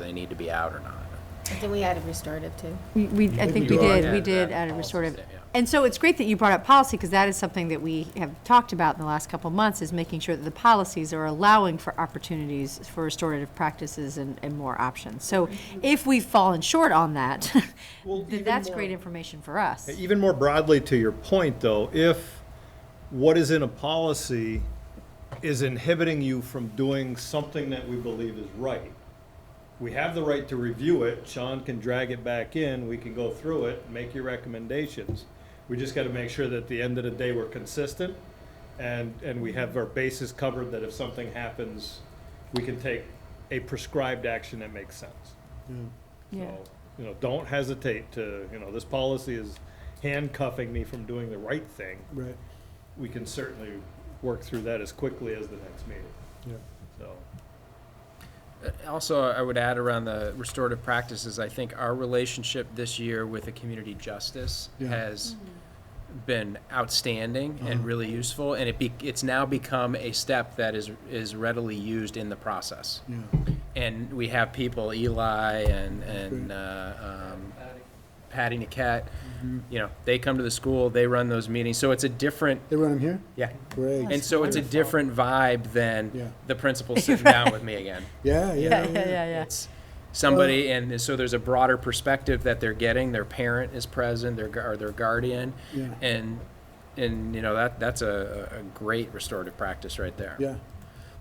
they need to be out or not. Then we added restorative too. We- We, I think think we we are. did, we Yeah, did that add a policy restorative. statement, yeah. And so it's great that you brought up policy, because that is something that we have talked about in the last couple of months, is making sure that the policies are allowing for opportunities for restorative practices and, and more options. So if we've fallen short on that, Well, then even that's more- great information for us. Even more broadly to your point, though, if what is in a policy is inhibiting you from doing something that we believe is right, we have the right to review it. Sean can drag it back in. We can go through it, make your recommendations. We just got to make sure that at the end of the day, we're consistent and, and we have our bases covered that if something happens, we can take a prescribed action that makes sense. Yeah. So, you know, don't hesitate to, you know, this policy is handcuffing me from doing the right thing. Right, We can certainly work through that as quickly as the next meeting, yeah. so. Uh, Also, I would add around the restorative practices, I think our relationship this year with the community justice Yeah. Uh-huh. has been outstanding and really useful, and it be, it's now become a step that is, is readily used in the process. Yeah. And we have people, Eli and, and, Great. uh, um, Patty Niket, Mm-hmm. you know, they come to the school, they run those meetings, so it's a different, They run them here? yeah. And Great. so it's a different vibe Yeah. than the principal sitting down with me again Yeah, yeah, Yeah, yeah, yeah. it's somebody, and so there's a broader perspective that they're getting. Their parent is present, their gu- or their guardian, Yeah. and and you know that that's a, a great restorative practice right there. yeah.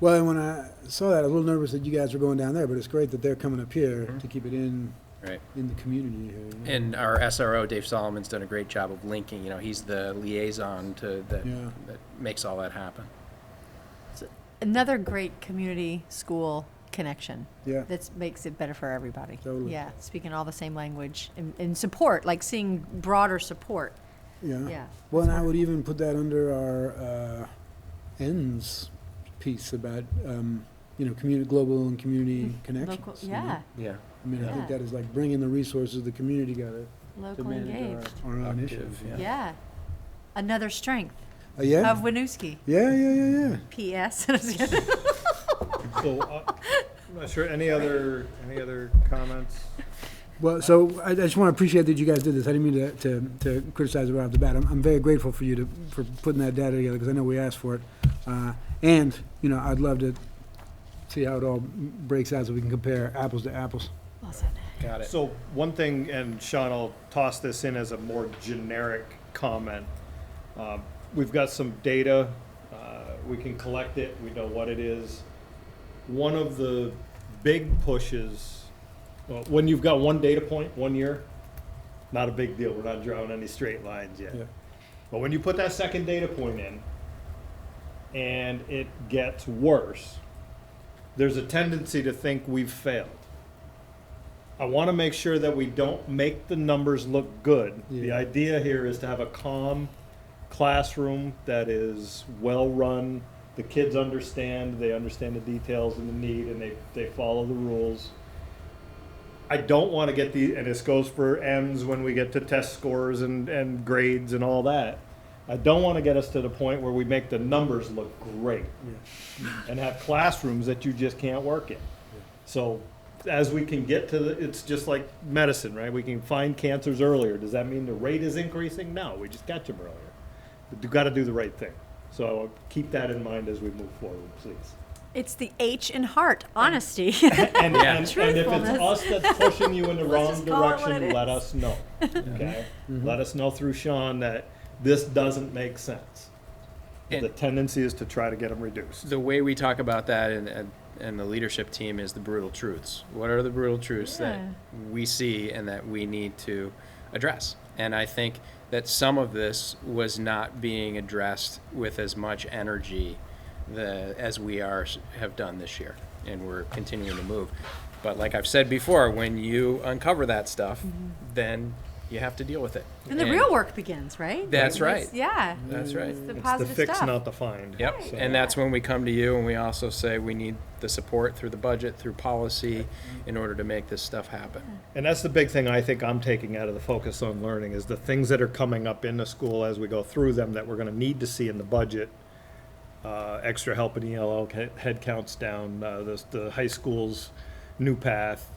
Well, and when I saw that, I was a little nervous that you guys were going down there, but it's great that they're coming up here to keep it in, Right. in the community here. And our SRO Dave Solomon's done a great job of linking. You know, he's the liaison to that Yeah. that makes all that happen. Another great community-school connection. Yeah. That makes it better for everybody. Totally. Yeah, speaking all the same language and, and support, like seeing broader support. Yeah. Yeah, Well, and I would even put that under our uh, ends piece about, um, you know, community, global and community connections. Mm-hmm. Local, you know? yeah, Yeah. I mean, I think Yeah. that is like bringing the resources of the community together to locally manage engaged. our, our own Active, issues. yeah. Yeah. Another strength Uh, yeah. of Winooski. yeah, yeah, yeah, yeah. P.S. So, uh, I'm not sure, any other, any other comments? Well, so I I just want to appreciate that you guys did this. I didn't mean to, to, to criticize it right off the bat. I'm, I'm very grateful for you to, for putting that data together because I know we asked for it. Uh, and, you know, I'd love to see how it all breaks out so we can compare apples to apples. Got it. So one thing, and Sean, I'll toss this in as a more generic comment. Um, We've got some data, uh, we can collect it, we know what it is. One of the big pushes, well, when you've got one data point, one year, not a big deal, we're not drawing any straight lines yet. Yeah. But when you put that second data point in and it gets worse, there's a tendency to think we've failed. I want to make sure that we don't make the numbers look good. The Yeah. idea here is to have a calm classroom that is well run. The kids understand, they understand the details and the need, and they, they follow the rules. I don't want to get the, and this goes for M's when we get to test scores and, and grades and all that. I don't want to get us to the point where we make the numbers look great and have classrooms that you just can't work in. So as we can get to the, it's just like medicine, right? We can find cancers earlier. Does that mean the rate is increasing? No, we just catch them earlier. But you got to do the right thing. So keep that in mind as we move forward, please. it's the H in heart, honesty. And, Yeah. and, and if it's us that's pushing you in the wrong just call it what direction, it let is. us know. Okay? Mm-hmm. Let us know through Sean that this doesn't make sense. But The And- tendency is to try to get them reduced. The way we talk about that and, and and the leadership team is the brutal truths. What are the brutal truths Yeah. that we see and that we need to address? And I think that some of this was not being addressed with as much energy the, as we are have done this year, and we're continuing to move. But like I've said before, when you uncover that stuff, then you have to deal with it. Mm-hmm. and the real work begins, right? That's right. It's- Yeah. That's right. It's the It's the positive fix, stuff. not the find. Yep, So- and that's when we come to you and we also say we need the support through the budget, through policy, in order to make this stuff happen. And that's the big thing I think I'm taking out of the focus on learning is the things that are coming up in the school as we go through them that we're gonna need to see in the budget. Uh, extra help in ELL, head- headcounts down, uh, the, the high school's new path,